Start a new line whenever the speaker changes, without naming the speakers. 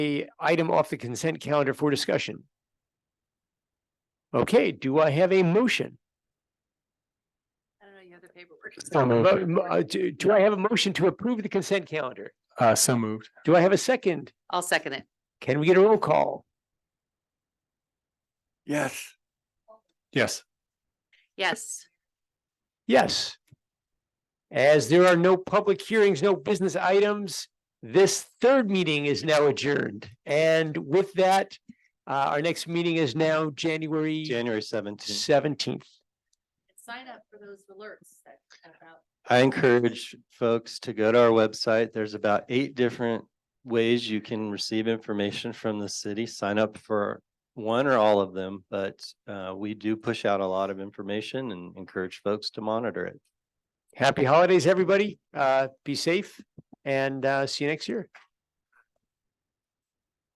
a item off the consent calendar for discussion? Okay, do I have a motion?
I don't know, you have the paperwork.
So
Mo-
moved.
mo- uh, Do do I have a motion to approve the consent calendar?
Uh, so moved.
Do I have a second?
I'll second it.
Can we get a roll call?
Yes. Yes.
Yes,
Yes. As there are no public hearings, no business items, this third meeting is now adjourned. And with that, uh, our next meeting is now January
January seventeenth.
seventeenth.
sign up for those alerts that about.
I encourage folks to go to our website. There's about eight different ways you can receive information from the city. Sign up for one or all of them, but uh, we do push out a lot of information and encourage folks to monitor it.
Happy holidays, everybody. Uh, be safe and, uh, see you next year.